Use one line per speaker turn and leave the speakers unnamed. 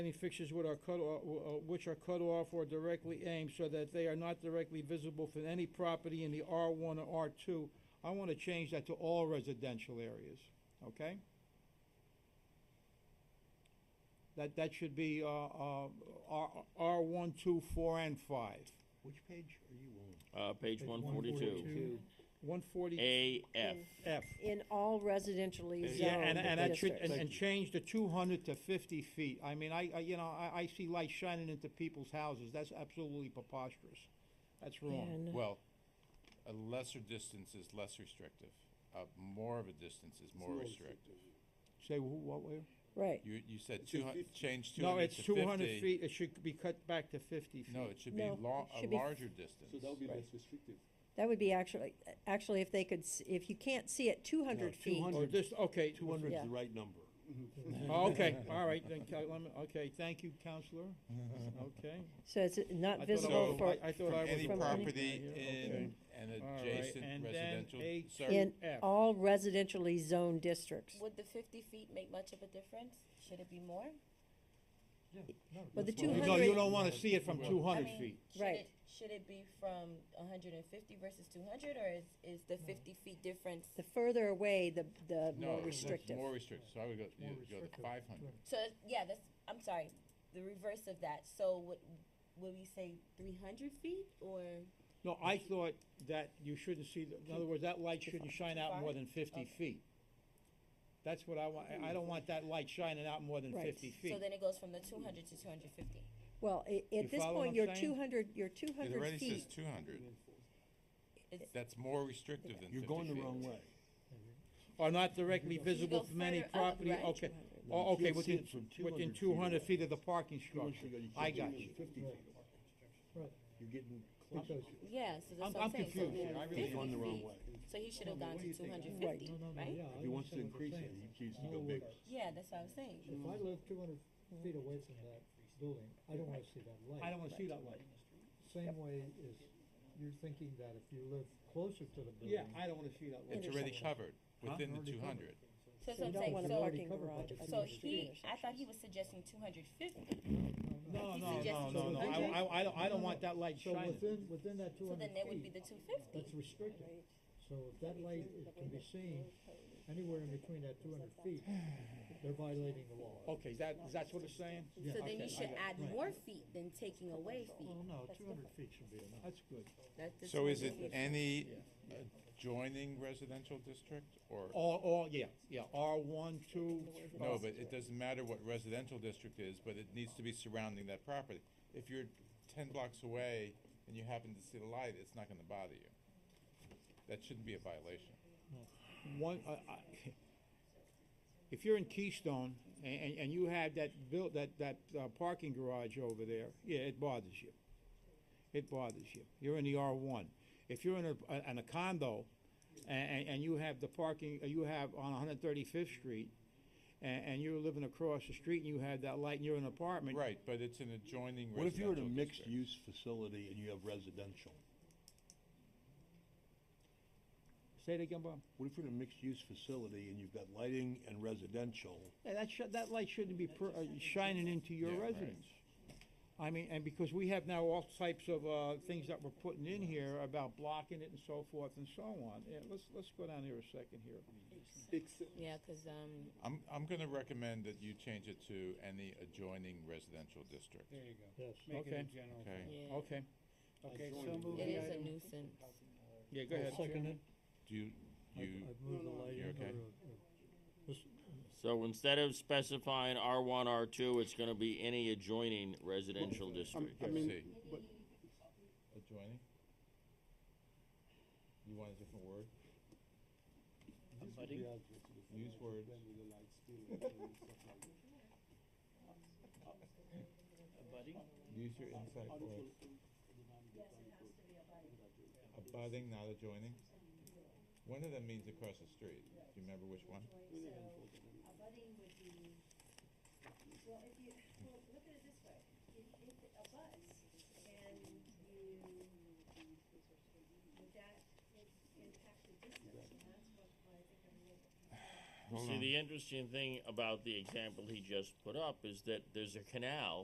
any fixtures with our cut, off- uh, which are cut off or directly aimed so that they are not directly visible from any property in the R1 or R2. I want to change that to all residential areas, okay? That, that should be, uh, uh, R, R1, 2, 4, and 5.
Which page are you on?
Uh, page one forty-two,
140F.
A F.
in all residentially zoned
Yeah, and, and that should, and,
districts.
and change the two hundred to fifty feet. I mean, I, I, you know, I, I see light shining into people's houses. That's absolutely preposterous. That's wrong.
And-
Well, a lesser distance is less restrictive. Uh, more of a distance is more restrictive.
Say, wh- what, way?
Right,
You, you said
says
two hun-
50.
change two
No,
hundred
it's
to fifty.
two hundred feet. It should be cut back to fifty feet.
No, it should be
No,
lo-
it
a
should be-
larger distance.
So that would be
Right.
less restrictive.
that would be actually, actually, if they could, s- if you can't see it two hundred feet,
200.
Or just, Oh, okay.
Two hundred is
Yeah.
the right number.
Oh, Okay, all right, then, Cal- let me- okay, thank you, counselor. Okay.
so it's
I
not
thought I
visible
was-
for,
I- I thought
From
I was
any
from
right
any-
property
here, okay.
in an
All right,
adjacent
and then
residential.
a
sir-
in
F.
all residentially zoned districts.
Would the fifty feet make much of a difference? Should it be more?
Well, the two
No, you
hundred,
don't wanna see it from two
I
hundred
mean,
feet.
should
Right.
it- Should it be from hundred and fifty versus two hundred, or is, is the fifty feet difference?
the further away, the, the
No,
more
it's
restrictive.
More restrictive, so I would go, you would go to five hundred.
So, yeah, that's, I'm sorry, the reverse of that, so would, would we say three hundred feet, or?
No, I thought that you shouldn't see, the- in other words, that light shouldn't shine out more than fifty
Okay.
feet. That's what I want, I- I don't want that light shining out more than
Right.
fifty
So
feet.
then it goes from the two hundred to two hundred fifty.
Well, i-
You
at this
follow
point,
what
your
I'm saying?
two hundred, your two
It
hundred
already says
feet,
two hundred.
It's-
That's more restrictive than fifty
You're going the
feet.
wrong way.
Are not directly visible
go
from any
further up,
property,
right?
okay,
No,
oh,
you
okay,
can't see
within,
it from
within
200 feet
two hundred
away.
feet of the parking
You want
structure.
to go- you
I
can't
got
see it
you.
from Fifty feet. You're getting closer. You're
Yeah, so
I'm-
that's what I'm
I'm
saying, so
confused.
then
I
really-
50
Going the wrong
feet.
way.
So he should have gone to two hundred
Right.
fifty, right?
If he wants to increase it, he chooses to go bigger.
Yeah, that's what I'm saying.
If I live two hundred feet away from that building, I don't wanna see that
I
light.
don't wanna see that light.
Same way is, you're thinking that if you live closer to the
Yeah,
building.
I don't wanna see that light.
It's already covered within the
Already
two
covered.
hundred.
So that's
so
what
you
I'm
don't
saying,
want a
so,
already
parking
covered by
garage.
the
by the
so
street
he, I
intersection.
thought he was suggesting two hundred fifty.
No,
He
no, no,
suggested
no, no, I,
200?
I, I don't, I don't want that light
So
shining.
within, within that two
So
hundred
then that would be
feet,
the two fifty.
that's restricted. So if that light is, can be seen anywhere in between that two hundred feet, they're violating the
Oh,
law.
Okay, that, that's what it's saying?
So then
Okay, I
you should
got it.
add more feet than taking away feet.
no, two hundred feet should be enough.
That's good.
That's the
So is it
250.
any adjoining residential district or?
All, all, yeah, yeah, R one, two.
No, but it doesn't matter what residential district is, but it needs to be surrounding that property. If you're ten blocks away and you happen to see the light, it's not gonna bother you. That shouldn't be a violation.
One, I, I, if you're in Keystone and, and, and you have that built, that, that, uh, parking garage over there, yeah, it bothers you. It bothers you. You're in the R one. If you're in a, a- in a condo and, and you have the parking, uh, you have on one hundred thirty-fifth street and, and you're living across the street and you have that light and you're in an apartment.
Right, but it's an adjoining
What if you
residential
were in a
district.
mixed-use facility and you have residential?
Say it again, Bob.
What if you're in a mixed-use facility and you've got lighting and residential?
Yeah, that should, that light shouldn't be per, uh, shining into your
Yeah, right.
residence. I mean, and because we have now all types of, uh, things that we're putting in here about blocking it and so forth and so on. Yeah, let's, let's go down here a second here.
Except,
Yeah, cause, um,
I'm, I'm gonna recommend that you change it to any adjoining residential district,
There you go.
Yes.
Make it
Okay.
a general.
okay?
yeah,
Okay,
Okay, so
Adjoining.
move
it is a
item-
nuisance.
yeah, go ahead.
Second it,
Do you,
I've,
you,
I've moved the
you
lighting
okay?
or, or
So instead of specifying R one, R two, it's gonna be any adjoining residential district.
I mean,
see,
but
adjoining? You want a different word?
these would be adequate to the
Use
fire
words.
Then with the lights still and stuff like that.
Use your insight word. Abutting, not adjoining? One of them means across the street. Do you remember which one?
Well, if you, well, look at it this way, if, if it abuts and you, would that i- impact the distance? And that's what I think I'm a little.
Hold
See,
on.
the interesting thing about the example he just put up is that there's a canal